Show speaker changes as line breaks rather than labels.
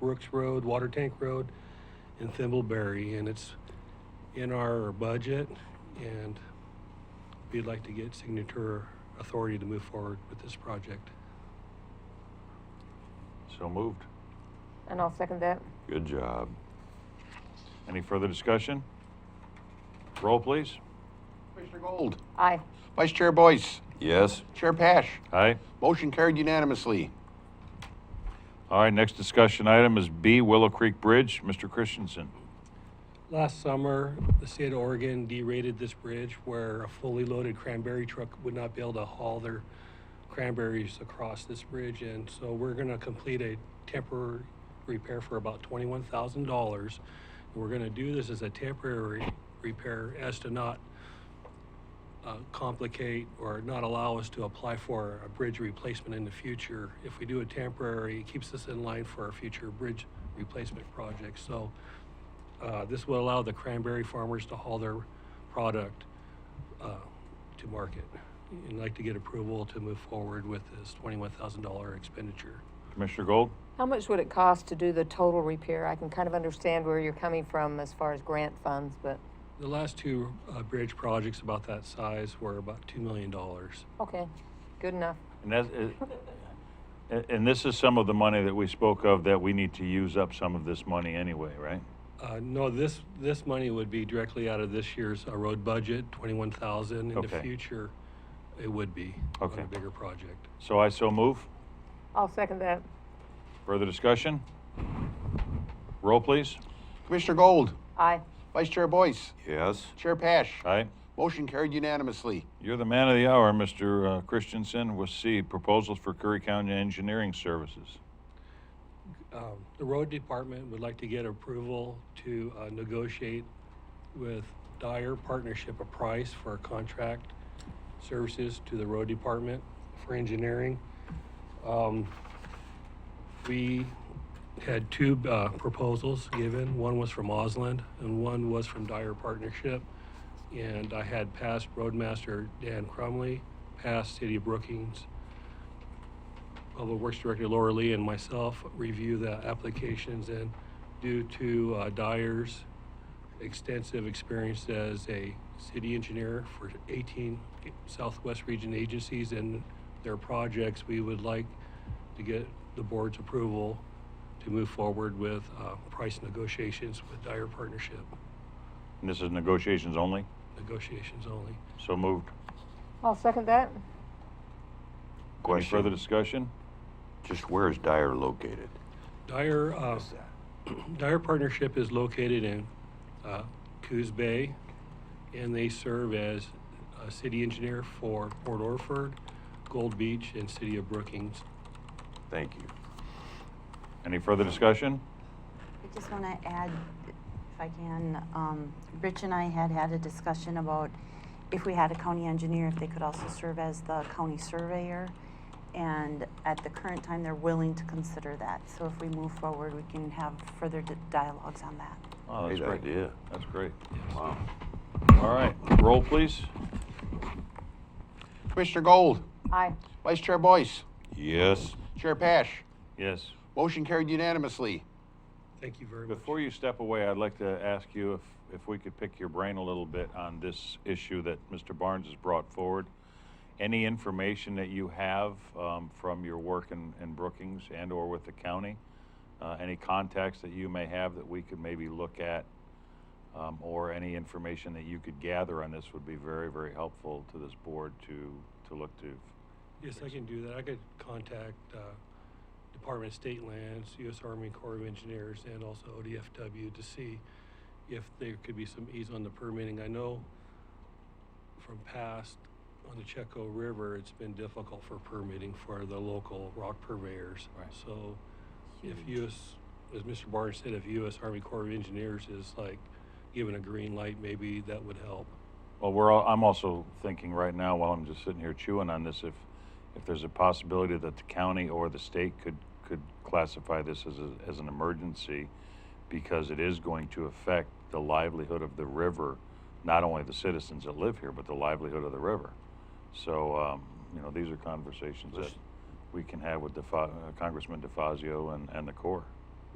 Brooks Road, Water Tank Road, and Thimbleberry, and it's in our budget, and we'd like to get signature authority to move forward with this project.
So moved.
And I'll second that.
Good job. Any further discussion? Roll, please.
Commissioner Gold.
Aye.
Vice Chair Boyce.
Yes,
Chair Pash.
Aye.
Motion carried unanimously.
All right, next discussion item is B, Willow Creek Bridge. Mr. Christensen.
Last summer, the state of Oregon derated this bridge where a fully loaded cranberry truck would not be able to haul their cranberries across this bridge. And so we're going to complete a temporary repair for about twenty-one thousand dollars. We're going to do this as a temporary repair as to not uh, complicate or not allow us to apply for a bridge replacement in the future. If we do a temporary, it keeps us in line for our future bridge replacement projects. So uh, This will allow the cranberry farmers to haul their product uh, to market. And like to get approval to move forward with this $21,000 expenditure.
Commissioner Gold?
How much would it cost to do the total repair? I can kind of understand where you're coming from as far as grant funds, but,
The last two uh, bridge projects about that size were about $2 million.
okay, good enough.
And that's, uh, and- and this is some of the money that we spoke of that we need to use up some of this money anyway, right?
Uh, No, this, this money would be directly out of this year's uh, road budget, 21,000. In the
Okay.
future, it would be on
Okay.
a bigger project.
So I so move.
I'll second that.
Further discussion? Roll, please.
Commissioner Gold.
Aye.
Vice Chair Boyce.
yes,
Chair Pash.
Aye.
Motion carried unanimously.
You're the man of the hour, Mr. uh, Christensen, with C, proposals for Curry County Engineering Services.
um, the road department would like to get approval to uh, negotiate with Dyer Partnership a price for contract services to the road department for engineering. Um, We had two uh, proposals given. One was from Osland and one was from Dyer Partnership. And I had past Roadmaster Dan Crumley, past City of Brookings, Public Works Director Laura Lee and myself review the applications and due to uh, Dyer's extensive experience as a city engineer for 18 Southwest Region agencies and their projects, we would like to get the board's approval to move forward with uh, price negotiations with Dyer Partnership,
And this is negotiations only,
negotiations only.
so moved.
I'll second that.
Any further
question.
discussion?
Just where is Dyer located?
Dyer, uh, Dyer Partnership is located in uh, Coos Bay, and they serve as a city engineer for Port Orford, Gold Beach, and City of Brookings.
Thank you.
Any further discussion?
I just want to add, if I can, um, Rich and I had had a discussion about if we had a county engineer, if they could also serve as the county surveyor. And at the current time, they're willing to consider that. So if we move forward, we can have further di- dialogues on that.
Oh, that's
Great
great.
idea.
That's great.
Wow.
All right, roll, please.
Commissioner Gold.
Aye.
Vice Chair Boyce.
Yes,
Chair Pash.
Yes.
Motion carried unanimously.
Thank you very much.
Before you step away, I'd like to ask you if, if we could pick your brain a little bit on this issue that Mr. Barnes has brought forward. Any information that you have um, from your work in, in Brookings and/or with the county? uh, Any contacts that you may have that we could maybe look at? um, Or any information that you could gather on this would be very, very helpful to this board to, to look to.
Yes, I can do that. I could contact uh, Department of State Lands, U.S. Army Corps of Engineers, and also ODFW to see if there could be some ease on the permitting. I know from past, on the Checo River, it's been difficult for permitting for the local rock purveyors.
Right.
So if U.S., as Mr. Barnes said, if U.S. Army Corps of Engineers is like given a green light, maybe that would help.
Well, we're all, I'm also thinking right now, while I'm just sitting here chewing on this, if, if there's a possibility that the county or the state could, could classify this as, a, as an emergency, because it is going to affect the livelihood of the river, not only the citizens that live here, but the livelihood of the river. So, um, you know, these are conversations that
Listen.
we can have with Defa- uh, Congressman DeFazio and, and the Corps.